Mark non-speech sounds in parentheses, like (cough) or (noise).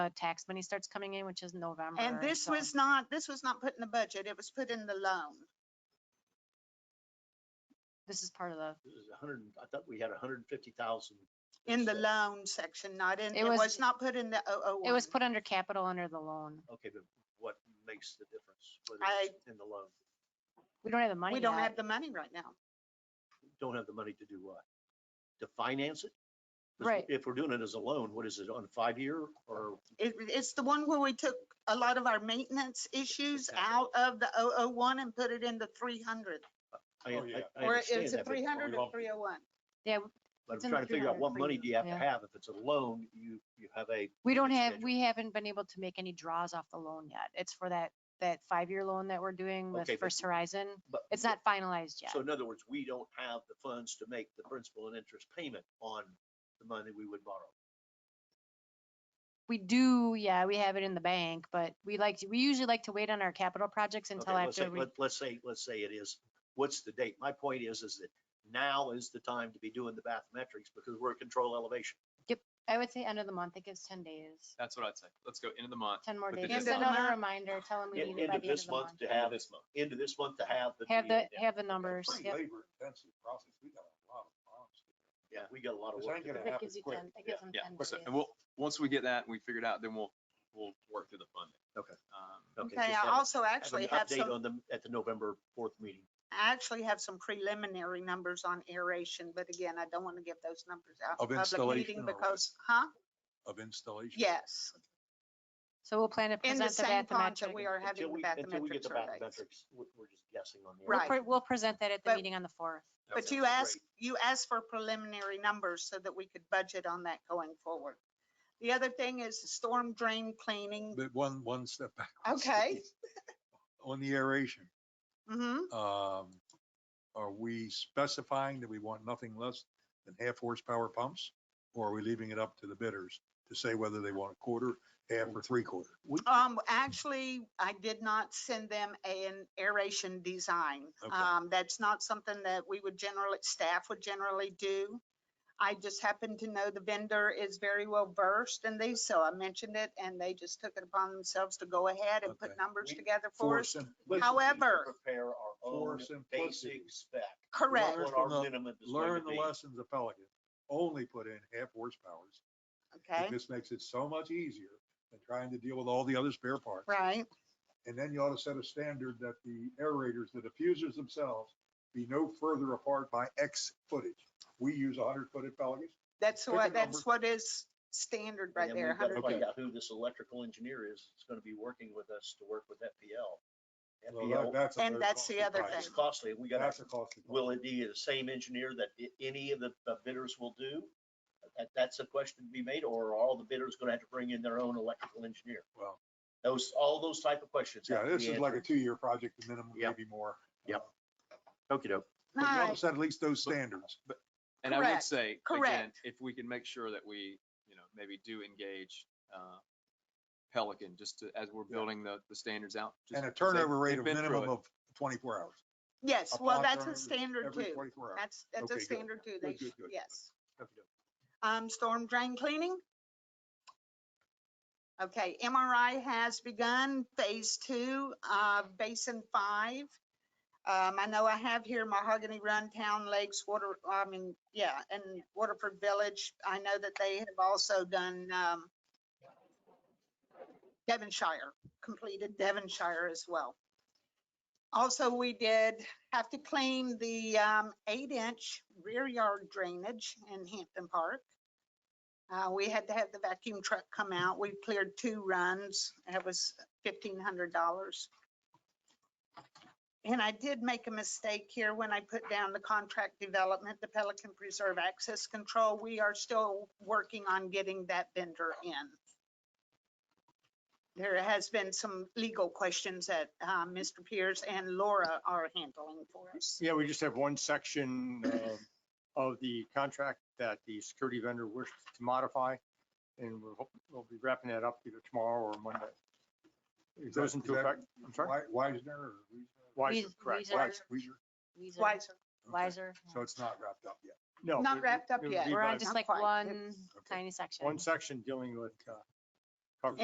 uh, tax money starts coming in, which is November. And this so- was not, this was not put in the budget. It was put in the loan. This is part of the, This is a hundred, and- I thought we had a hundred and fifty thousand. In the loan section, not in, It it was- was not put in the O O one. it was put under capital under the loan. Okay, but what makes the difference? whether I- it's In the loan, We don't have the money We don't yet. have the money right now. don't have the money to do what? To finance it? 'Cause Right. If we're doing it as a loan, what is it, on five-year or? It, it's the one where we took a lot of our maintenance issues out capital. of the O O one and put it in the three hundred. I- Oh, I- yeah. I Or understand it's a that, but- three hundred or lump it. three oh one. Yeah, But It's I'm in the trying to figure out 300 what money do you have to yeah. have? If it's a loan, you, you have a. we don't have, schedule. we haven't been able to make any draws off the loan yet. It's for that, that five-year loan that we're doing with Okay, but- First Horizon. but- It's not finalized yet. So in other words, we don't have the funds to make the principal and interest payment on the money we would borrow. We do, yeah, we have it in the bank, but we like, to- we usually like to wait on our capital projects until Okay, let's say, after we, let- let's say, let's say it is, what's the date? My point is, is that now is the time to be doing the bathymetrics because we're at control elevation. I would say end of the month. It gives ten days, That's what I'd say. Let's go into the month. ten more With days. the Just deadline. another reminder, tell them we End need it end by of the end of this the month. month to have, This month. end of this month to have. Have the, deal. have the numbers. Pretty yep. labor intensive process. We got a lot of problems. Yeah, we got a lot of This work. ain't to do. gonna That happen gives you quick. ten, that gives them Yeah, ten so- days. and we'll, once we get that, and we figure it out, then we'll, we'll work through the funding. Okay. Um, Okay, just Okay, have I a- also have an actually have Update some, on them at the November fourth meeting. I actually have some preliminary numbers on aeration, but again, I don't want to give those numbers out Of in public meeting installation or what? because, huh? Of installation. Yes, So we'll plan to in the present the same font that we bathymetric. are Until having the we, until we get bathymetric the surveys. bathymetrics, we're, we're just guessing on the. We'll Right. pre- We'll present that at the But- meeting on the fourth. Okay, But you great. asked, you asked for preliminary numbers so that we could budget on that going forward. The other thing is the storm drain cleaning. But one, one step back. (laughs) Okay. On the aeration, hmm um, are we specifying that we want nothing less than half horsepower pumps? Or are we leaving it up to the bidders to say whether they want a quarter, half or three quarter? Um, actually, I did not send them an aeration design. Okay. Um, that's not something that we would generally, staff would generally do. I just happen to know the vendor is very well versed in these, so I mentioned it and they just took it upon themselves to go ahead and put Okay. numbers We- together for For us. sim- Listen, we should However- Prepare our For own simplicity. basic spec. Correct. What Learn from our the- minimum is going Learn to the be. lessons of Pelican. Only put in half horsepowers. Okay, And this makes it so much easier than trying to deal with all the other spare parts. right. And then you ought to set a standard that the aerators, the diffusers themselves, be no further apart by X footage. We use hundred foot at Pelican's. That's Pick a what, number. that's what is standard right And then there, we've got to 100. find out who this electrical engineer is, that's going to be working with us to work with FPL. Well, that- FPL, that's a And very that's the costly other price. it's costly, we got That's to, a costly. price. will it be the same engineer that i- any of the the bidders will do? That, that's a question to be made, or are all the bidders going to have to bring in their own electrical engineer? Well, Those, all those type of questions. yeah, this is like a two-year project, and minimum, Yep. maybe more. Yep. Okie doke. But you ought to Alright. set at least those standards. And I would Correct, say, again, correct. if we can make sure that we, you know, maybe do engage uh, Pelican, just to, as we're building the, the standards out. just And a 'cause they've- turnover rate they've of been through minimum it. of twenty-four hours. Yes, A well, pond that's a turnover standard Every too. twenty-four hours. That's, that's Okay, a good. standard too. They, Good, good, sh- good. yes. Okie doke. Um, storm drain cleaning. Okay, MRI has begun phase two, uh, basin five. Um, I know I have here Mahogany Run, Town Lakes, Water, I mean, yeah, and Waterford Village. I know that they have also done, um, Devonshire, completed Devonshire as well. Also, we did have to clean the um, eight-inch rear yard drainage in Hampton Park. Uh, We had to have the vacuum truck come out. We cleared two runs. It was $1,500. And I did make a mistake here when I put down the contract development, the Pelican Preserve Access Control. We are still working on getting that vendor in. There has been some legal questions that uh, Mr. Pierce and Laura are handling for us. Yeah, we just have one section um, of the contract that the security vendor wished to modify. And we'll, hope- we'll be wrapping that up either tomorrow or Monday. It Is that- goes is into that effect, I'm sorry? Wi- Wisner or? Wiser, Weis- correct. Weiser. Wis- Weezer, Weiser? Wiser. Okay. Weiser, yeah. So it's not wrapped up yet. No. Not it- wrapped up it would yet. be We're on like just Not like quite. one It's- Okay. tiny section. One section dealing with uh,